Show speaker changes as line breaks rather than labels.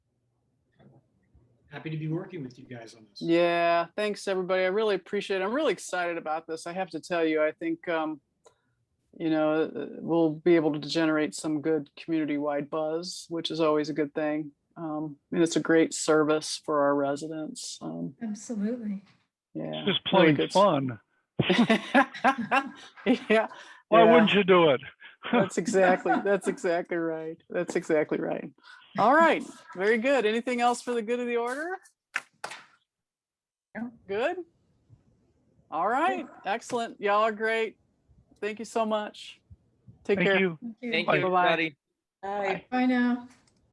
happy to be working with you guys on this.
Yeah, thanks everybody. I really appreciate it. I'm really excited about this. I have to tell you, I think um, you know, uh, we'll be able to generate some good community-wide buzz, which is always a good thing. Um, and it's a great service for our residents. Um,
Absolutely.
yeah.
Just
really
plain
good
fun.
s- Yeah.
Why
yeah.
wouldn't you do it?
That's exactly, that's exactly right. That's exactly right. All right, very good. Anything else for the good of the order?
No.
Good? All right, excellent. Y'all are great. Thank you so much. Take
Thank
care.
you.
Thank
Thank you,
you.
Bye.
everybody.
Bye.
Bye now.